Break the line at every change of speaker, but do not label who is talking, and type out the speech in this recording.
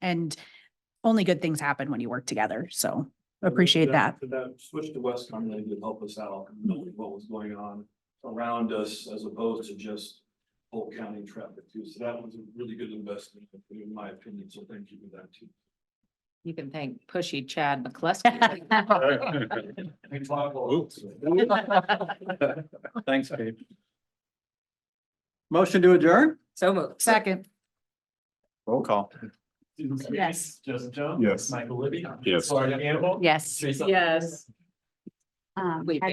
and only good things happen when you work together. So appreciate that.
To that switch to Westcom really did help us out, in knowing what was going on around us as opposed to just whole county traffic too. So that was a really good investment, in my opinion. So thank you for that too.
You can thank pushy Chad McCleskey.
We talked a lot.
Thanks, Gabe. Motion to adjourn?
So moved.
Second,
Roll call.
Yes.
Justin Jones.
Yes.
Michael Libby.
Yes.
Lauren Campbell.
yes.
Teresa
Yes.
Um,
Wait,